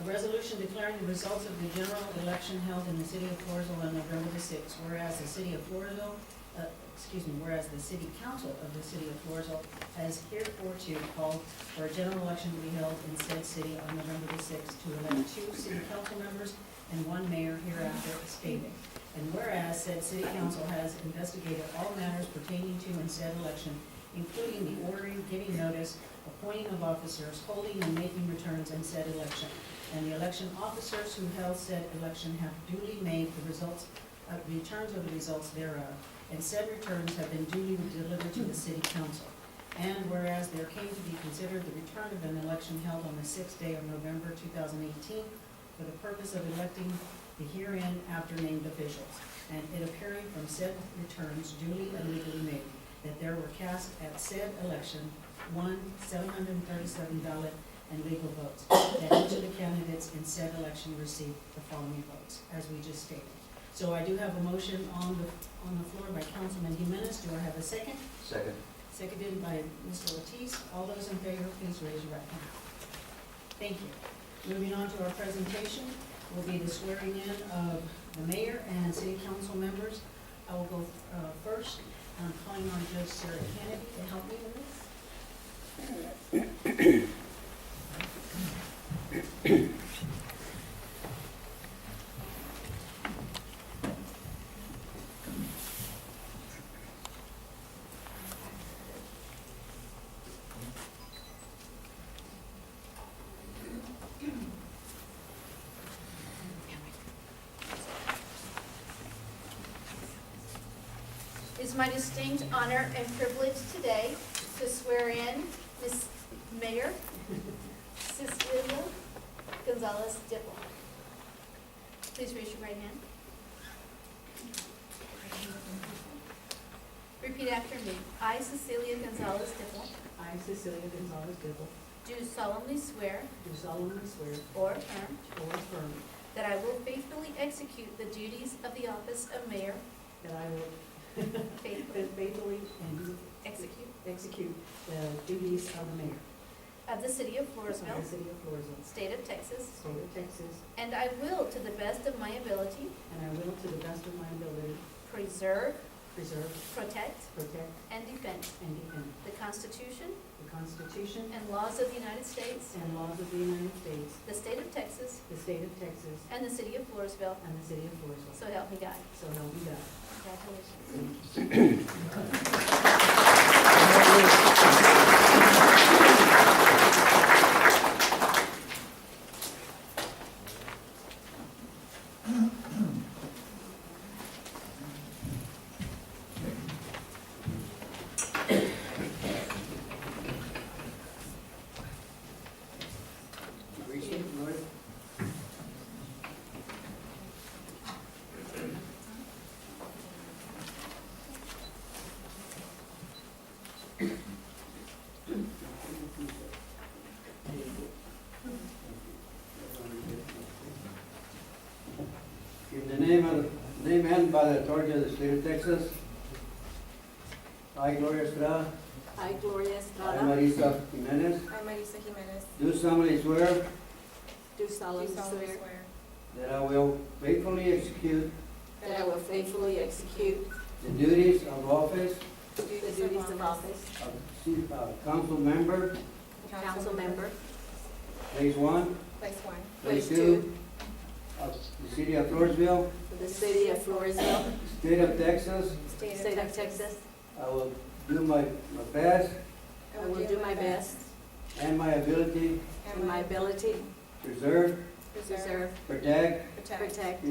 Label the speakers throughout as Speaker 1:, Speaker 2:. Speaker 1: A resolution declaring the results of the general election held in the city of Floresville on November the sixth, whereas the city of Floresville, uh, excuse me, whereas the city council of the city of Floresville has hereforto called for a general election to be held in said city on November the sixth to elect two city council members and one mayor hereafter stated. And whereas said city council has investigated all matters pertaining to and said election, including the ordering, giving notice, appointing of officers, holding and making returns in said election. And the election officers who held said election have duly made the results, uh, returns of the results thereof, and said returns have been duly delivered to the city council. And whereas there came to be considered the return of an election held on the sixth day of November two thousand eighteen for the purpose of electing the herein after named officials, and it appearing from said returns duly and legally made, that there were cast at said election, one, seven hundred and thirty-seven ballot and legal votes, that each of the candidates in said election received the following votes, as we just stated. So I do have a motion on the, on the floor by Councilman Jimenez, do I have a second?
Speaker 2: Second.
Speaker 1: Seconded by Mr. Ortiz. All those in favor, please raise your right hand. Thank you. Moving on to our presentation will be the swearing in of the mayor and city council members. I will go uh, first. I'm calling on Judge Sarah Kennedy to help me with this.
Speaker 3: It is my distinct honor and privilege today to swear in Ms. Mayor Cecilia Gonzalez Dipple. Please raise your right hand. Repeat after me. I, Cecilia Gonzalez Dipple,
Speaker 4: I, Cecilia Gonzalez Dibble,
Speaker 3: do solemnly swear
Speaker 4: do solemnly swear
Speaker 3: or affirm
Speaker 4: or affirm
Speaker 3: that I will faithfully execute the duties of the office of mayor,
Speaker 4: that I will
Speaker 3: faithfully
Speaker 4: faithfully and
Speaker 3: execute,
Speaker 4: execute the duties of the mayor
Speaker 3: of the city of
Speaker 4: of
Speaker 3: Floresville,
Speaker 4: the city of Floresville,
Speaker 3: state of Texas,
Speaker 4: state of Texas,
Speaker 3: And I will, to the best of my ability,
Speaker 4: and I will, to the best of my ability,
Speaker 3: preserve,
Speaker 4: preserve,
Speaker 3: protect,
Speaker 4: protect,
Speaker 3: and defend
Speaker 4: and defend
Speaker 3: the Constitution
Speaker 4: the Constitution
Speaker 3: and laws of the United States,
Speaker 4: and laws of the United States,
Speaker 3: the state of Texas,
Speaker 4: the state of Texas,
Speaker 3: and the city of Floresville.
Speaker 4: and the city of Floresville.
Speaker 3: So help me God.
Speaker 4: So help me God.
Speaker 3: Congratulations.
Speaker 5: In the name and, name and by the authority of the state of Texas, I, Gloria Estrada,
Speaker 6: I, Gloria
Speaker 5: I,
Speaker 6: Estrada.
Speaker 5: Marisa Jimenez,
Speaker 7: I, Marisa Jimenez,
Speaker 5: do solemnly swear
Speaker 6: Do
Speaker 7: do
Speaker 6: solemnly
Speaker 7: solemnly
Speaker 6: swear
Speaker 7: swear
Speaker 5: that I will faithfully execute
Speaker 6: that I will faithfully execute
Speaker 5: the duties of office
Speaker 7: the
Speaker 6: the duties of office,
Speaker 5: of ci- uh, council member,
Speaker 6: council member,
Speaker 5: place one,
Speaker 7: Place one,
Speaker 5: place
Speaker 6: Place
Speaker 5: two, of the city of Floresville,
Speaker 6: for the city of Floresville,
Speaker 5: state of Texas.
Speaker 6: state of Texas.
Speaker 5: I will do my, my best
Speaker 6: I will do my best
Speaker 5: and my ability
Speaker 6: in my ability
Speaker 5: to preserve,
Speaker 6: to preserve,
Speaker 5: protect,
Speaker 7: protect,
Speaker 6: protect,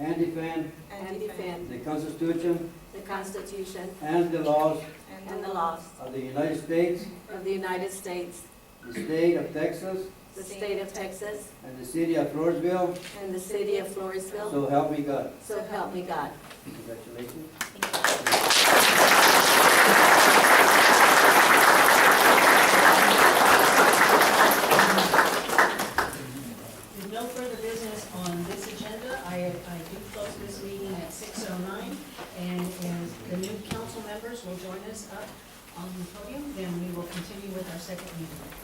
Speaker 5: and defend
Speaker 6: and defend
Speaker 5: the Constitution
Speaker 6: the Constitution
Speaker 5: and the laws
Speaker 6: and the laws
Speaker 5: of the United States,
Speaker 6: of the United States,
Speaker 5: the state of Texas,
Speaker 6: the state of Texas,
Speaker 5: and the city of Floresville,
Speaker 6: and the city of Floresville.
Speaker 5: so help me God.
Speaker 6: So help me God.
Speaker 5: Congratulations.
Speaker 1: With no further business on this agenda, I, I do close this meeting at six oh nine, and as the new council members will join us up on the podium, then we will continue with our second meeting.